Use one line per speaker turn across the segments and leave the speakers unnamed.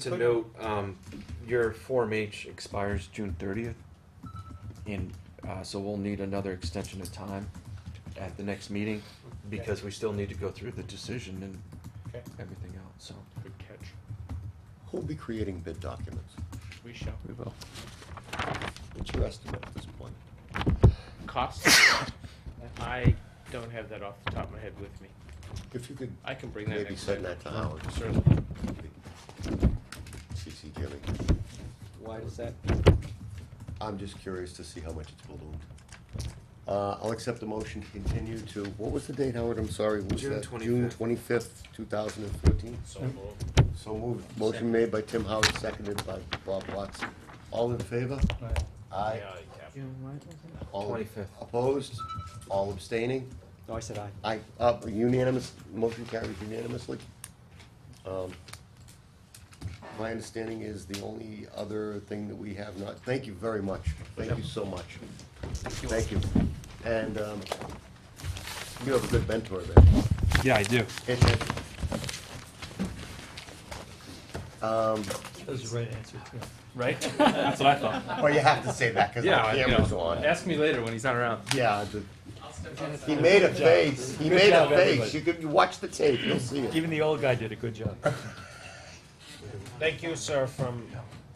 To note, um, your Form H expires June thirtieth, and, uh, so we'll need another extension of time at the next meeting, because we still need to go through the decision and
Okay.
everything else, so.
Good catch.
Who'll be creating bid documents?
We shall.
We will.
What's your estimate at this point?
Cost? I don't have that off the top of my head with me.
If you could
I can bring that
maybe
next
send
time.
that to Howard.
Certainly.
CC Jimmy.
Why does that?
I'm just curious to see how much it's ballooned. Uh, I'll accept the motion to continue to, what was the date, Howard? I'm sorry, what was
June
that?
25th.
twenty-fifth, two thousand and fourteen?
So
Hmm?
moved.
So moved. Motion made by Tim Howard, seconded by Bob Watson. All in favor? Aye.
Yeah, yeah.
All
25th.
Opposed? All abstaining?
No, I said aye.
Aye, uh, unanimous, motion carries unanimously. Um, My understanding is the only other thing that we have not, thank you very much, thank you so much. Thank you. And, um, you have a good mentor there.
Yeah, I do.
Um,
That was the right answer, too.
Right? That's what I thought.
well, you have to say that, cause the
Yeah, I- you
camera's
know,
on.
Ask me later when he's not around.
Yeah, the- he made a face, he made a
job,
face,
everybody.
you could, you watch the tape, you'll see it.
Even the old guy did a good job.
Thank you, sir, from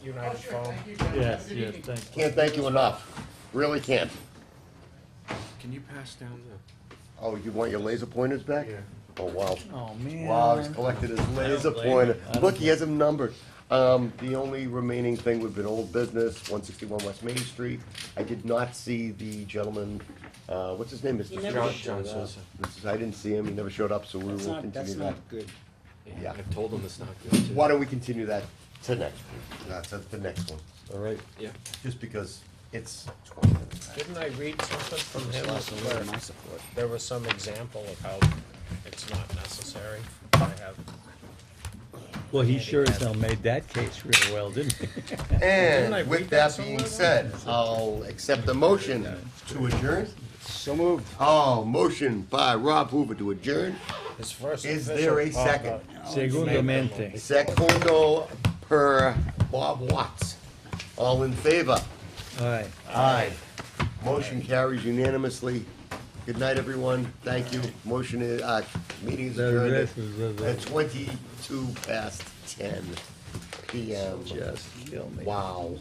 United Phone.
Yes, yes, thank you.
Can't thank you enough, really can't.
Can you pass down the?
Oh, you want your laser pointers back?
Yeah.
Oh, wow.
Oh, man.
Wow, he's collected his laser pointer. Look, he has them numbered. Um, the only remaining thing would have been old business, one sixty-one West Main Street. I did not see the gentleman, uh, what's his name, Mr.
never
John-
showed
John
up.
Sosa. This is- I didn't see him, he never showed up, so we will
That's
continue
not,
that.
that's not good.
Yeah.
I've told them it's not good to.
Why don't we continue that to next, week? uh, to the next one, all right?
Yeah,
Just because it's twenty minutes.
Didn't I read something from him
Where
where
my support?
there was some example of how it's not necessary? I have,
Well, he sure as hell made that case real well, didn't he?
I
And
read
with
that
that being
somewhere?
said, I'll accept the motion to adjourn.
So moved.
Oh, motion by Rob Hoover to adjourn.
his first
Is there a
official pop-up.
second?
Segundo mente.
Secundo per Bob Watts. All in favor?
All right.
Aye. Motion carries unanimously. Good night, everyone. Thank you. Motion is, uh, meeting is adjourned at twenty-two past ten PM.
Just kill me.
Wow.